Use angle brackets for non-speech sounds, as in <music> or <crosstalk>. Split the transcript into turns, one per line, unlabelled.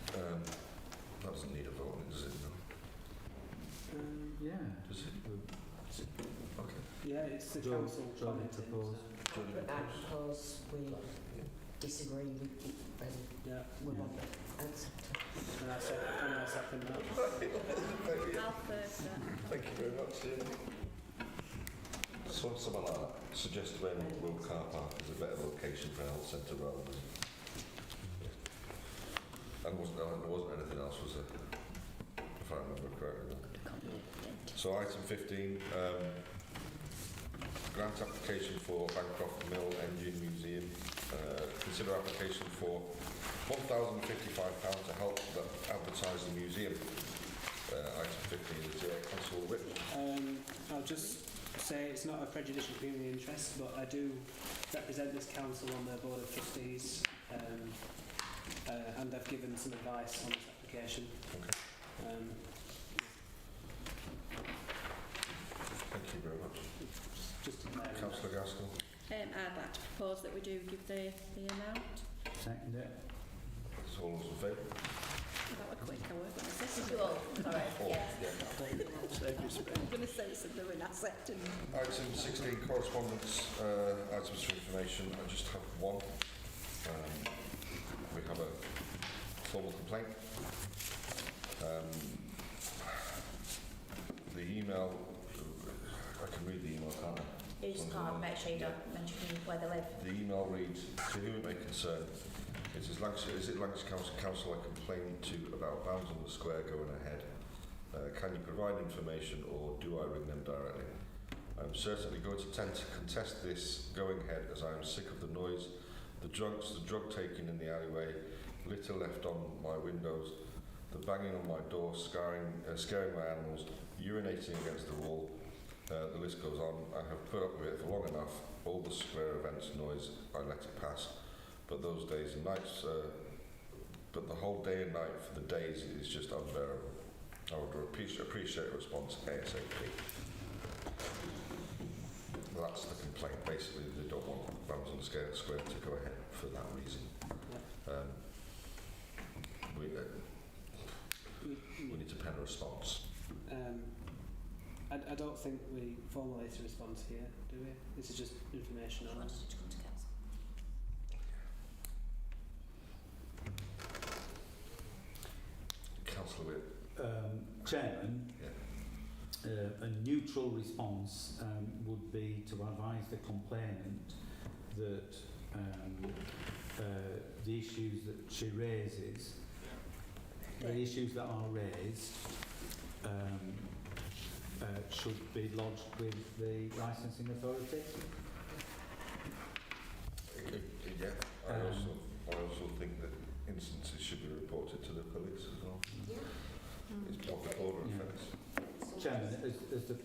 Um,
just,
Okay.
yeah, it's the
John-
council
John
commenting.
proposed.
so,
Johnny
But that
Nichols.
because we disagree with you and
Yeah,
we want it accepted.
and I second, and I second that.
I'll first that.
Thank you very much.
So what's someone like that suggest when Will Car Park is a better location for a health centre rather than... And wasn't, there wasn't anything else, was there? If I remember correctly. So item 15, um, grant application for Bancroft Mill Engine Museum. Uh, consider application for £1,055 to help the- advertise the museum. Uh, item 15 is uh, Councillor Whip.
Um, I'll just say it's not a prejudicial community interest, but I do represent this council on the Board of Trustees, um, uh, and I've given some advice on this application. Um,
Thank you very much.
just, just in there.
Councillor Gaskell.
Um, I'd like to propose that we do give the, the amount.
Second it.
It's all those in favour?
That was quick, I was going to say.
Alright,
<laughs>
All.
I'm going to say something when I said it.
Item 16, correspondence, uh, items for information. I just have one. Um, we have a formal complaint. Um, the email, I can read the email, can't I?
You just can't make sure you don't mention where they live.
The email reads, to whom it may concern, it is Lancashire, is it Lancashire Council, Council I complained to about bounds on the square going ahead? Uh, can you provide information or do I ring them directly? I'm certainly going to tend to contest this going ahead as I am sick of the noise, the drugs, the drug taking in the alleyway, litter left on my windows, the banging on my door, scaring, uh, scaring my animals, urinating against the wall, Uh, the list goes on. I have put up with it for long enough. All the square events noise, I let it pass. But those days and nights, uh, but the whole day and night for the days is just unbearable. I would appreciate, appreciate a response ASAP. That's the complaint. Basically, they don't want Ramsden Square Square to go ahead for that reason. Um, we, uh,
We,
we need to pen a response.
um, I, I don't think we formulate a response here, do we? This is just information on us.
Councillor Whip.
Um, Chairman,
Yeah.
uh, a neutral response um, would be to advise the complainant that um, uh, the issues that she raises, the issues that are raised, um, uh, should be lodged with the licensing authority.
Uh, Yeah, I
Um,
also, I also think that instances should be reported to the police as well. It's public order
Yeah.
offence.
Chairman, as, as the